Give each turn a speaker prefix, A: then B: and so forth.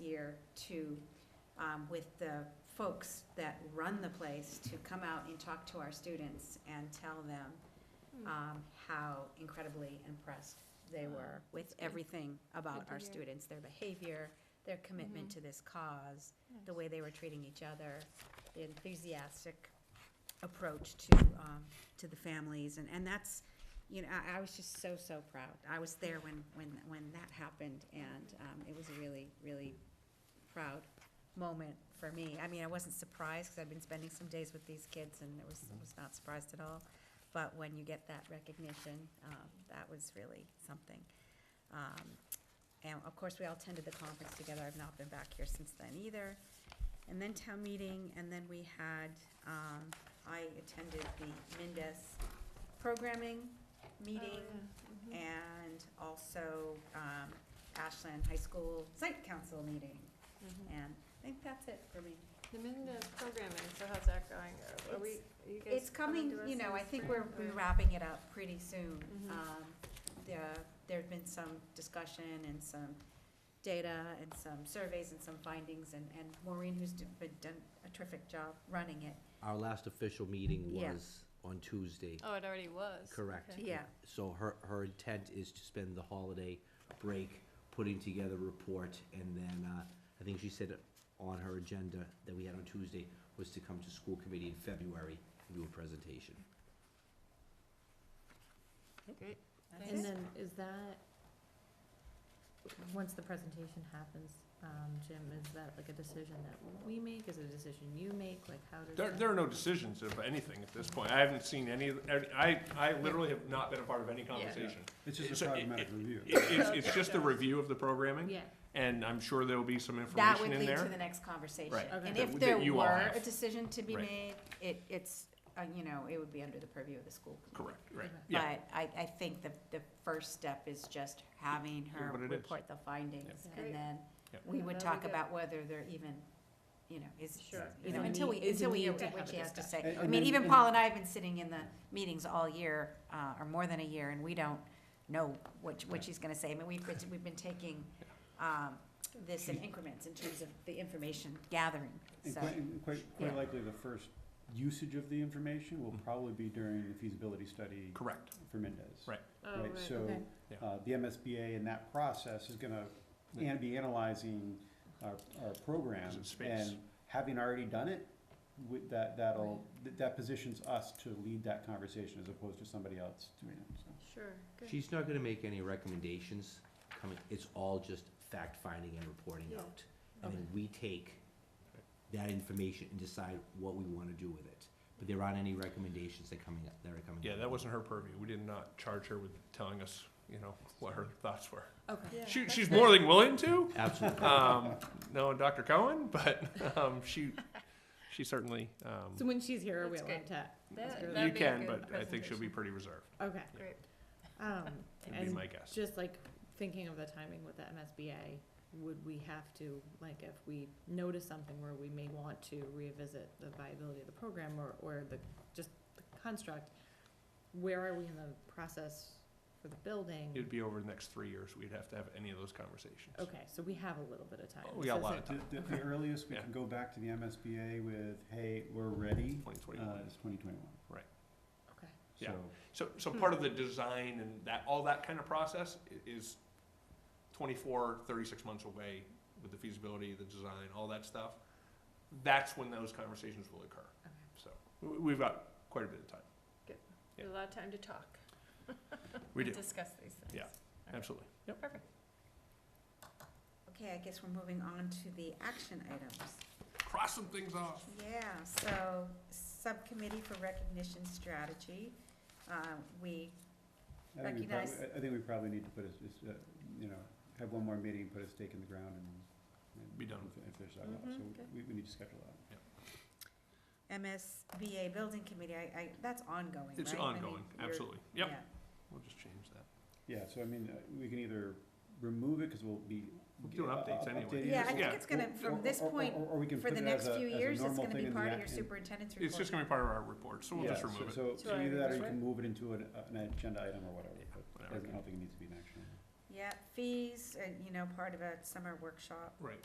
A: year to, um, with the folks that run the place to come out and talk to our students and tell them,
B: Hmm. Mm-hmm.
A: um, how incredibly impressed they were with everything
B: Good
A: about
B: to
A: our
B: hear. Mm-hmm.
A: students, their behavior, their commitment to this cause, the way they were treating each other, the enthusiastic approach to, um, to the families, and, and that's, you know, I, I was just so, so proud. I was there when, when, when that happened, and, um, it was a really, really proud moment for me. I mean, I wasn't surprised, because I've been spending some days with these kids, and it was, I was not surprised at all. But when you get that recognition, um, that was really something. Um, And of course, we all attended the conference together. I've not been back here since then either. And then town meeting, and then we had, um, I attended the Mindes programming meeting
B: Oh, Mm-hmm.
A: and also um, Ashland High School Site Council meeting. And I think that's it for me.
B: Mm-hmm. The Minda programming, so how's that going? Are we, are you guys?
A: It's coming,
B: to us
A: you
B: in
A: know,
B: the
A: I think we're
B: spring,
A: we're
B: or-
A: wrapping it up pretty soon.
B: Mhm.
A: Um, There, there've been some discussion and some data and some surveys and some findings, and and Maureen, who's do- been- done a terrific job running it.
C: Our last official meeting
A: Yeah.
C: was on Tuesday,
B: Oh, it already was.
C: correct?
B: Okay.
A: Yeah.
C: So her, her intent is to spend the holiday break putting together a report, and then, uh, I think she said on her agenda that we had on Tuesday was to come to school committee in February and do a presentation.
B: Great.
A: That's
D: And
A: it.
D: then is that, once the presentation happens, um, Jim, is that like a decision that we make? Is it a decision you make? Like how does
E: There,
D: that?
E: there are no decisions of anything at this point. I haven't seen any, of- I, I literally have not been a part of any conversation.
F: It's
E: just a
F: just
E: So
F: a
E: it- pragmatic
F: pragmatic review.
E: It's, it's just a review of the programming,
D: Yeah,
E: and I'm sure there will be some
A: That
E: information
A: would
E: in
A: lead to the
E: there.
A: next conversation.
E: Right.
D: Okay.
A: And
D: That
A: if
E: w- that
A: there
E: you all
A: were
E: have.
A: a decision to be
E: Right.
A: made, it, it's, uh, you know, it would be under the purview of the school. committee.
E: Correct, right,
D: Okay.
E: yeah.
A: But I, I think the, the first step is just having her
E: Hear what it is.
A: report the findings,
D: Yeah.
A: and then
E: Yeah.
A: we
B: Yeah,
A: would
B: that'd
A: talk
B: be good.
A: about whether they're even, you know, is,
B: Sure.
A: you
D: Is
A: know,
D: it
A: until we,
D: need- is it
A: until we hear
D: needed to
A: what
D: have
A: she
D: a
A: has to
D: discussion?
A: say.
F: And-
A: I
F: and
A: mean,
F: then-
A: even
F: and-
A: Paul and I have been sitting in the meetings all year, uh, or more than a year, and we don't know what, what she's gonna say. I mean, we've been, we've been taking, um, this in increments in terms of the information gathering,
F: And
A: so.
F: quite, and quite,
A: Yeah.
F: quite likely, the first usage of the information
E: Mm-hmm.
F: will probably be during the feasibility study
E: Correct,
F: for Mendez.
E: Right.
B: Oh,
F: Right,
B: right.
F: so,
D: okay.
E: Yeah.
F: uh, the MSBA in that process is gonna, and be analyzing our, our program.
E: Is it space?
F: And having already done it, with that, that'll, that that positions us to lead that conversation as opposed to somebody else doing it, so.
B: Sure, good.
C: She's not gonna make any recommendations coming, it's all just fact-finding and reporting
B: Yeah.
C: out. And then we take that information and decide what we wanna do with it. But there aren't any recommendations that coming, that are coming.
E: yeah, that wasn't her purview. We did not charge her with telling us, you know, what her thoughts were.
D: Okay.
B: Yeah,
E: She,
B: that's
E: she's
B: good.
E: more than willing to,
C: Absolutely.
E: um, knowing Dr. Cohen, but, um, she, she certainly, um,
D: So when she's here, are we
B: That's
D: allowed
B: great.
D: to?
B: That-
D: really-
E: you
B: that'd be a
E: can,
B: good
E: but I think she'll be pretty reserved,
D: Okay.
B: Great.
D: Um,
E: would be
D: and
E: my guess.
D: just like thinking of the timing with the MSBA, would we have to, like, if we notice something where we may want to revisit the viability of the program or, or the, just the construct, where are we in the process for the building?
E: It'd be over the next three years. We'd have to have any of those conversations.
D: Okay, so we have a little bit of time.
E: Oh, we got a
D: This
E: lot
D: isn't-
E: of time.
F: The, the- the earliest we
E: Yeah.
F: can go back to the MSBA with, hey, we're ready,
E: Twenty
F: uh,
E: twenty-one.
F: is twenty twenty-one.
D: Okay,
E: Yeah.
F: So,
E: So, so
A: Hmm.
E: part of the design and that, all that kind of process i- is 24, 36 months away with the feasibility, the design, all that stuff. That's when those conversations will occur.
D: okay.
E: So we- we've got quite a bit of time.
B: We have A lot of time to talk.
E: We
B: and
E: do.
B: Discuss these things.
E: Yeah. Absolutely. Yep.
B: Perfect.
A: Okay, I guess we're moving on to the action items.
E: Cross some things off.
A: Yeah, so Subcommittee for Recognition Strategy, uh, we,
F: I think we
A: Recognize-
F: probably, uh, I- I think we probably need to put a, just, uh, you know, have one more meeting, put a stake in the ground and. and-
E: Be done
F: and
E: with
F: fi- And finish that
A: Mm-hmm,
F: one,
B: Mhm,
F: up. so
B: good.
F: we, we need to schedule that.
A: MSBA Building Committee, I, I, that's ongoing, right?
E: It's
A: I mean,
E: ongoing.
A: you're-
E: Absolutely. Yep.
A: yeah.
E: We'll just change that.
F: Yeah, so I mean, uh, we can either remove it, cause we'll be.
E: We're doing
F: uh,
E: updates
F: uh,
E: anyway.
F: updating
A: Yeah, I
F: it,
A: think
E: Yeah.
A: it's gonna,
F: or-
A: from
F: or-
A: this
F: or-
A: point,
F: or- or we can
A: for
F: put
A: the
F: it
A: next
F: as a-
A: few
F: as a
A: years, it's
F: normal
A: gonna be
F: thing in the
A: part of
F: act-
A: your
F: in-
A: superintendent's report.
E: It's just gonna be part of our report, so we'll
F: Yeah,
E: just
F: so-
E: remove it.
F: So,
B: Should I
F: so either that or
B: remove
F: you
B: it?
F: can move it into an, uh, an agenda item or whatever,
E: Yeah,
F: but I
E: whatever.
F: don't think it needs to be an action.
A: uh, Yeah, fees, and, you know, part of a summer workshop.
E: Right.